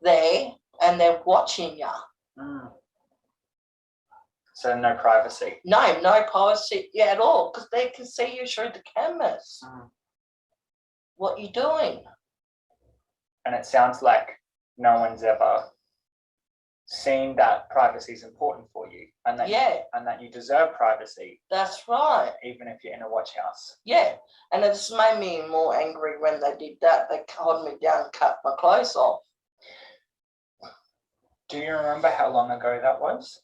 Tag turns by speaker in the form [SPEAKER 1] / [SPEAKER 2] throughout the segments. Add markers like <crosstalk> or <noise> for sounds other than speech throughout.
[SPEAKER 1] there and they're watching you.
[SPEAKER 2] Mm. So no privacy.
[SPEAKER 1] No, no privacy at all because they can see you through the cameras.
[SPEAKER 2] Mm.
[SPEAKER 1] What you doing?
[SPEAKER 2] And it sounds like no one's ever seen that privacy is important for you and that,
[SPEAKER 1] Yeah,
[SPEAKER 2] and that you deserve privacy,
[SPEAKER 1] that's right.
[SPEAKER 2] even if you're in a watch house.
[SPEAKER 1] Yeah, and it's made me more angry when they did that. They held me down, cut my clothes off.
[SPEAKER 2] Do you remember how long ago that was?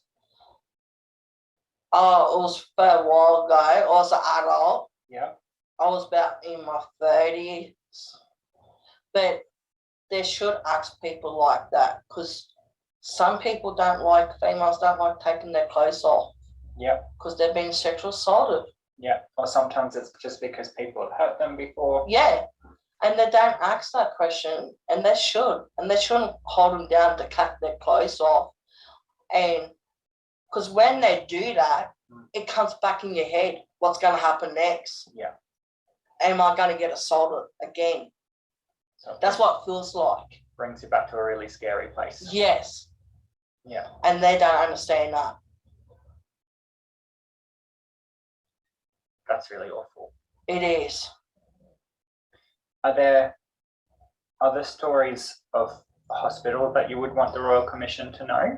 [SPEAKER 1] Oh, it was for a while ago. I was an adult.
[SPEAKER 2] Yeah.
[SPEAKER 1] I was about in my thirties. But they should ask people like that because some people don't like females don't like taking their clothes off
[SPEAKER 2] Yeah.
[SPEAKER 1] because they've been sexual assaulted.
[SPEAKER 2] Yeah. Or sometimes it's just because people have hurt them before.
[SPEAKER 1] Yeah. And they don't ask that question and they should. And they shouldn't hold them down to cut their clothes off. And because when they do that,
[SPEAKER 2] Mm.
[SPEAKER 1] it comes back in your head. What's going to happen next?
[SPEAKER 2] Yeah.
[SPEAKER 1] Am I going to get assaulted again?
[SPEAKER 2] So it
[SPEAKER 1] That's what it feels like.
[SPEAKER 2] brings you back to a really scary place.
[SPEAKER 1] Yes.
[SPEAKER 2] Yeah.
[SPEAKER 1] And they don't understand that.
[SPEAKER 2] That's really awful.
[SPEAKER 1] It is.
[SPEAKER 2] Are there other stories of hospital that you would want the Royal Commission to know?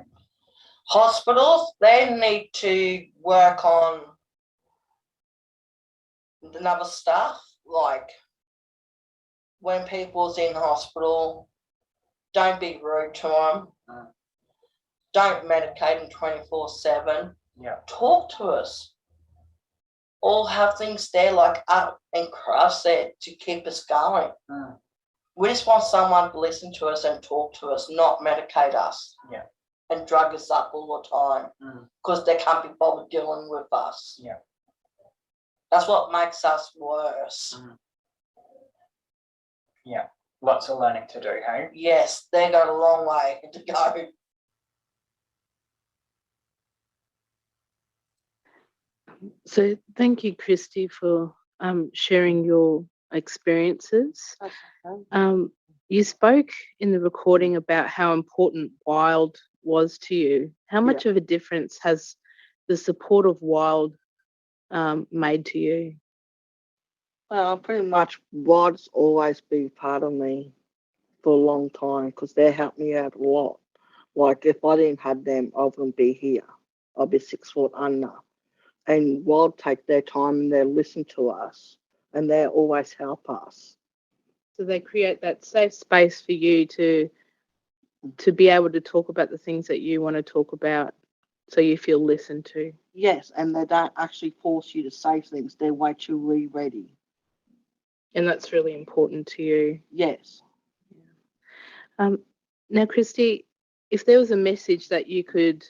[SPEAKER 1] Hospitals, they need to work on another stuff, like when people's in hospital, don't be rude to them.
[SPEAKER 2] Mm.
[SPEAKER 1] Don't medicate them 24 7.
[SPEAKER 2] Yeah.
[SPEAKER 1] Talk to us. All have things there, like up and cross it to keep us going.
[SPEAKER 2] Hmm.
[SPEAKER 1] We just want someone to listen to us and talk to us, not medicate us.
[SPEAKER 2] Yeah.
[SPEAKER 1] And drug us up all the time
[SPEAKER 2] Mm.
[SPEAKER 1] because they can't be bothered dealing with us.
[SPEAKER 2] Yeah.
[SPEAKER 1] That's what makes us worse.
[SPEAKER 2] Lots of learning to do, hey?
[SPEAKER 1] Yes, they got a long way <laughs> to go.
[SPEAKER 3] So thank you, Christy, for um, sharing your experiences.
[SPEAKER 2] Hmm.
[SPEAKER 3] Um, you spoke in the recording about how important Wild was to you. How much of a difference has the support of Wild um, made to you?
[SPEAKER 4] Well, pretty much Rod's always been part of me for a long time because they helped me out a lot. Like if I didn't have them, I wouldn't be here. I'd be six foot under. And Rod take their time and they listen to us and they always help us.
[SPEAKER 3] So they create that safe space for you to to be able to talk about the things that you want to talk about, so you feel listened to.
[SPEAKER 4] Yes, and they don't actually force you to say things. They wait till we ready.
[SPEAKER 3] And that's really important to you.
[SPEAKER 4] Yes.
[SPEAKER 3] Um, now, Christy, if there was a message that you could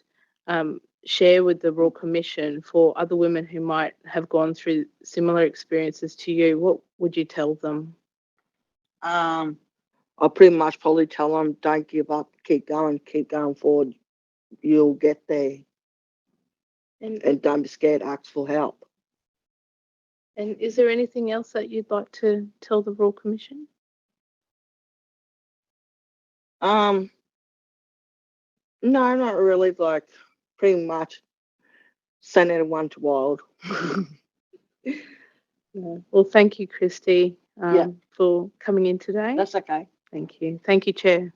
[SPEAKER 3] um, share with the Royal Commission for other women who might have gone through similar experiences to you, what would you tell them?
[SPEAKER 4] Um, I pretty much probably tell them don't give up, keep going, keep going forward. You'll get there.
[SPEAKER 3] And,
[SPEAKER 4] and don't be scared, ask for help.
[SPEAKER 3] and is there anything else that you'd like to tell the Royal Commission?
[SPEAKER 4] Um, no, not really. Like, pretty much, send everyone to wild.
[SPEAKER 3] No. Well, thank you, Christy, um,
[SPEAKER 4] Yeah.
[SPEAKER 3] for coming in today.
[SPEAKER 4] That's okay.
[SPEAKER 3] thank you. Thank you, Chair.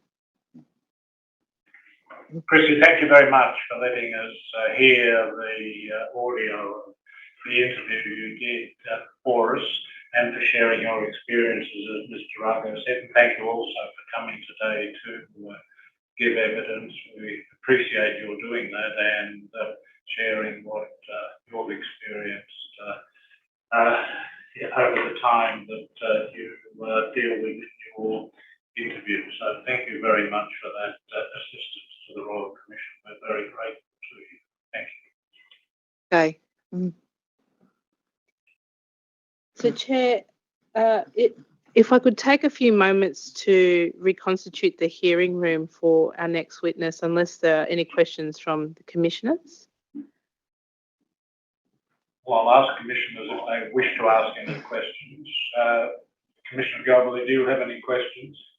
[SPEAKER 5] Christy, thank you very much for letting us uh, hear the uh, audio of the interview you did uh, for us and for sharing your experiences, as Ms. Durago said. And thank you also for coming today to uh, give evidence. We appreciate your doing that and uh, sharing what uh, you've experienced uh, uh, over the time that uh, you uh, deal with your interview. So thank you very much for that uh, assistance to the Royal Commission. We're very grateful to you. Thank you.
[SPEAKER 4] Okay.
[SPEAKER 3] So, Chair, uh, it, if I could take a few moments to reconstitute the hearing room for our next witness, unless there are any questions from the commissioners.
[SPEAKER 5] Well, I'll ask commissioners if they wish to ask any questions. Uh, Commissioner Gobley, do you have any questions?